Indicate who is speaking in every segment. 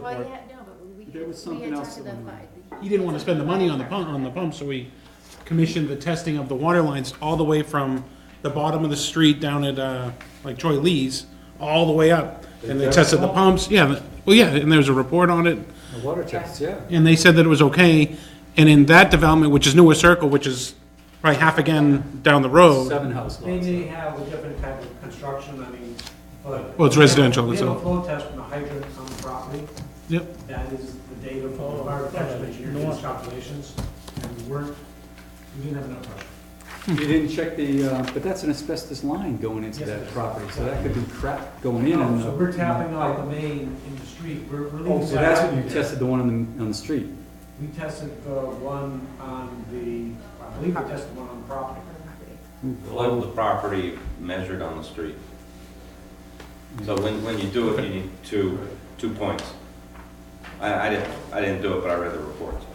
Speaker 1: Well,
Speaker 2: report.
Speaker 1: yeah, no, but we,
Speaker 3: There was
Speaker 1: we
Speaker 3: something
Speaker 1: had
Speaker 3: else
Speaker 1: talked to the
Speaker 3: that we
Speaker 1: fire.
Speaker 2: He didn't want to spend the money on the pump, on the pump, so we commissioned the testing of the water lines all the way from the bottom of the street down at, uh, like Troy Lee's, all the way up. And they tested the pumps, yeah, the- well, yeah, and there was a report on it,
Speaker 4: The water test, yeah.
Speaker 2: and they said that it was okay. And in that development, which is Newer Circle, which is probably half again down the
Speaker 5: Oh.
Speaker 2: road,
Speaker 4: Seven house
Speaker 5: They
Speaker 4: lots.
Speaker 5: may have a different type of construction, I mean, but.
Speaker 2: Well, it's residential,
Speaker 5: We have
Speaker 2: so-
Speaker 5: a flow test from a hydrant on the property.
Speaker 2: Yep.
Speaker 5: That is the data from the fire protection engineer's calculations, and we weren't, we didn't have enough pressure.
Speaker 4: You didn't check the, uh, but that's an asbestos line going into
Speaker 5: Yes, it
Speaker 4: that
Speaker 5: is. Oh,
Speaker 4: property, so that could be crap going in. and, uh,
Speaker 5: So we're tapping out the main in the street, we're, we're leaving.
Speaker 4: Oh, so that's
Speaker 5: that
Speaker 4: when you
Speaker 5: out.
Speaker 4: tested the one on the, on the street?
Speaker 5: We tested the one on the, I believe we tested one on the property.
Speaker 6: The level of the property measured on the street. So when, when you do it, you need two, two points. I, I didn't, I didn't do it, but I read the reports.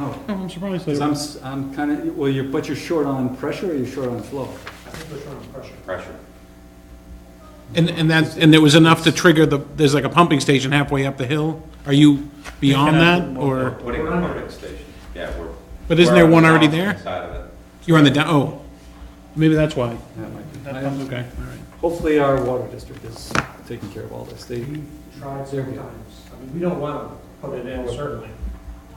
Speaker 4: Oh,
Speaker 2: Oh, I'm surprised. they-
Speaker 4: because I'm, s- I'm kind of, well, you're, but you're short on pressure or you're short on flow?
Speaker 5: I think we're showing pressure.
Speaker 6: pressure.
Speaker 2: And, and that, and there was enough to trigger the, there's like a pumping station halfway up the hill. Are you beyond that,
Speaker 6: We're
Speaker 2: or,
Speaker 6: putting a pumping station, yeah, we're.
Speaker 2: but isn't
Speaker 6: we're
Speaker 2: there
Speaker 6: on
Speaker 2: one
Speaker 6: the
Speaker 2: already
Speaker 6: downstream
Speaker 2: there?
Speaker 6: Side of it.
Speaker 2: You're on the down, oh, maybe that's why.
Speaker 4: That might be-
Speaker 2: Okay, all right.
Speaker 4: Hopefully our water district is taking care of all this. They,
Speaker 5: We tried several times. I mean, we don't want to put it in, certainly.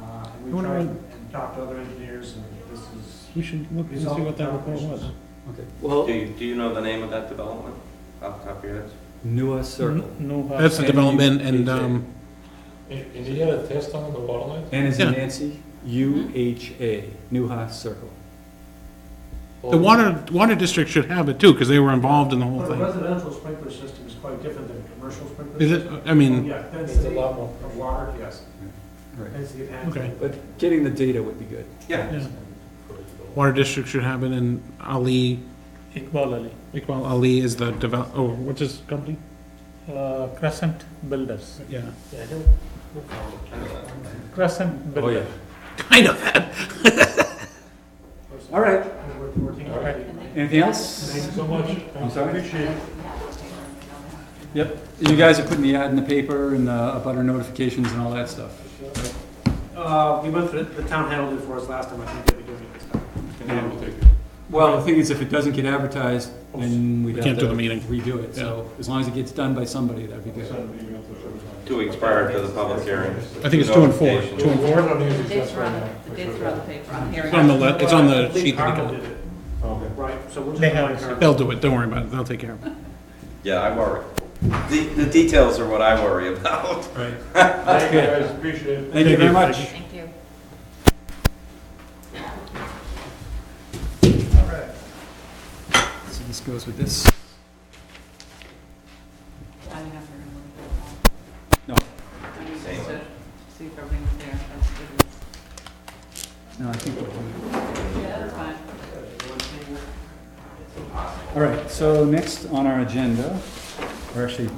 Speaker 5: Uh, and
Speaker 2: You
Speaker 5: We
Speaker 2: wanna
Speaker 5: tried
Speaker 2: run-
Speaker 5: and talked to other engineers, and this is.
Speaker 2: We should look and
Speaker 5: these
Speaker 2: see
Speaker 5: all
Speaker 2: what that report was.
Speaker 5: calculations.
Speaker 4: okay, well,
Speaker 6: Do you, do you know the name of that development off the top of your heads?
Speaker 4: Nua Circle.
Speaker 5: Mm-hmm.
Speaker 2: That's the development and, um,
Speaker 7: And and he had a test on the water line?
Speaker 4: N is in
Speaker 2: Yeah.
Speaker 4: Nancy,
Speaker 5: Mm-hmm.
Speaker 4: U H A, Nua Circle.
Speaker 2: the water, water district should have it too, because they were involved in the whole
Speaker 5: But a
Speaker 2: thing.
Speaker 5: residential sprinkler system is quite different than a commercial sprinkler.
Speaker 2: Is it, Mm.
Speaker 5: system.
Speaker 2: I mean,
Speaker 5: Yeah,
Speaker 7: It's a
Speaker 5: density
Speaker 7: lot more.
Speaker 5: of water, yes.
Speaker 4: Right.
Speaker 5: Density of
Speaker 2: okay,
Speaker 5: action.
Speaker 4: But getting the data would be good.
Speaker 6: Yeah,
Speaker 2: yeah. Water district should have it and Ali,
Speaker 7: Iqbal Ali,
Speaker 2: Iqbal Ali is the develop, oh, what's his company?
Speaker 7: uh, Crescent Builders.
Speaker 2: Yeah.
Speaker 7: Crescent
Speaker 4: Oh, yeah.
Speaker 7: Builders.
Speaker 2: Kind of.
Speaker 4: All right,
Speaker 5: We're- we're working on it.
Speaker 4: anything else?
Speaker 7: Thank you so much.
Speaker 4: I'm sorry?
Speaker 7: Appreciate it.
Speaker 4: Yep, you guys are putting the ad in the paper and uh, about our notifications and all that stuff.
Speaker 5: Uh, we went through, it. the town handled it for us last time, I think they're doing it this time.
Speaker 4: Well, the thing is, if it doesn't get advertised, then we'd
Speaker 2: We
Speaker 4: have to.
Speaker 2: can't do the meeting.
Speaker 4: Redo it, so as long as it gets done by somebody, that'd be good.
Speaker 6: two weeks prior to the public hearing.
Speaker 2: I think it's two and four,
Speaker 6: Notification.
Speaker 2: two and four.
Speaker 1: The dates were on the, the dates were on the paper, on here.
Speaker 2: It's on the, le- it's on the sheet that he
Speaker 5: Cargill
Speaker 2: got.
Speaker 5: did it. Right, so we'll just.
Speaker 7: They have
Speaker 5: remind her.
Speaker 2: They'll do it, don't worry about it, they'll take care of it.
Speaker 6: Yeah, I worry. The, the details are what I worry about.
Speaker 4: That's good.
Speaker 7: appreciate it.
Speaker 4: Thank you very much.
Speaker 1: Thank you.
Speaker 4: So this goes with this.
Speaker 1: I don't have to remember
Speaker 4: No.
Speaker 1: that. I mean, just
Speaker 6: Same.
Speaker 1: to see if everything's there, that's good.
Speaker 4: No, I think we're done.
Speaker 1: Yeah, that's fine.
Speaker 4: All right, so next on our agenda, or actually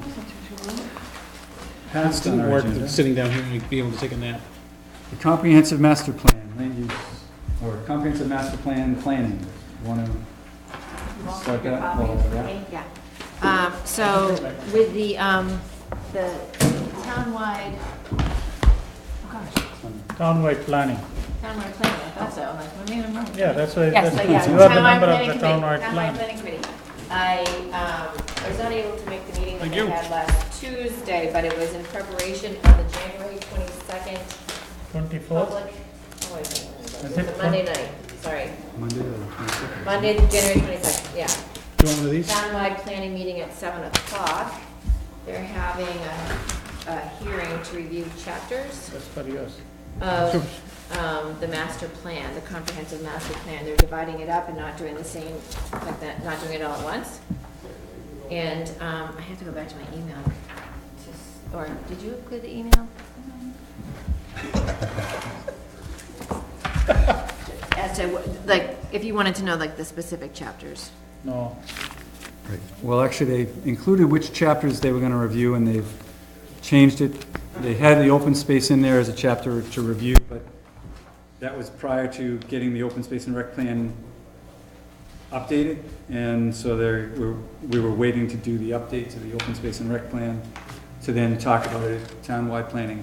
Speaker 4: past on
Speaker 2: Didn't
Speaker 4: our
Speaker 2: work,
Speaker 4: agenda,
Speaker 2: sitting down here and be able to take a nap.
Speaker 4: the comprehensive master plan, land use, or comprehensive master plan planning. Want to start that? Well, yeah.
Speaker 1: Yeah. Um, So with the, um, the townwide, oh gosh,
Speaker 7: Townwide planning.
Speaker 1: townwide planning, I thought so, I'm like, I don't remember.
Speaker 7: Yeah, that's why.
Speaker 1: Yes,
Speaker 7: that's-
Speaker 1: so yeah,
Speaker 7: You are the
Speaker 1: townwide
Speaker 7: member
Speaker 1: planning
Speaker 7: of the
Speaker 1: committee,
Speaker 7: townwide
Speaker 1: townwide
Speaker 7: plan.
Speaker 1: planning committee. I, um, was not able to make the meeting that they had last Tuesday, but it was in preparation of the January twenty-second
Speaker 7: Twenty-fourth,
Speaker 1: public, oh, wait, wait, wait,
Speaker 7: Is
Speaker 1: wait, it's
Speaker 7: it
Speaker 1: a
Speaker 7: twen-
Speaker 1: Monday night, sorry,
Speaker 4: Monday or the 22nd?
Speaker 1: Monday, January twenty-second, yeah.
Speaker 2: Do you want one of these?
Speaker 1: Townwide planning meeting at seven o'clock. They're having a, a hearing to review chapters
Speaker 7: that's for yours.
Speaker 1: of, um, the master plan, the comprehensive master plan. They're dividing it up and not doing the same, like that, not doing it all at once. And, um, I have to go back to my email. to s- Or, did you include the email? As to, what- like, if you wanted to know, like, the specific chapters.
Speaker 7: No.
Speaker 4: Well, actually, they included which chapters they were going to review, and they've changed it. They had the open space in there as a chapter to review, but that was prior to getting the open space and rec plan updated, and so there, we were waiting to do the update to the open space and rec plan. to then talk about it at townwide planning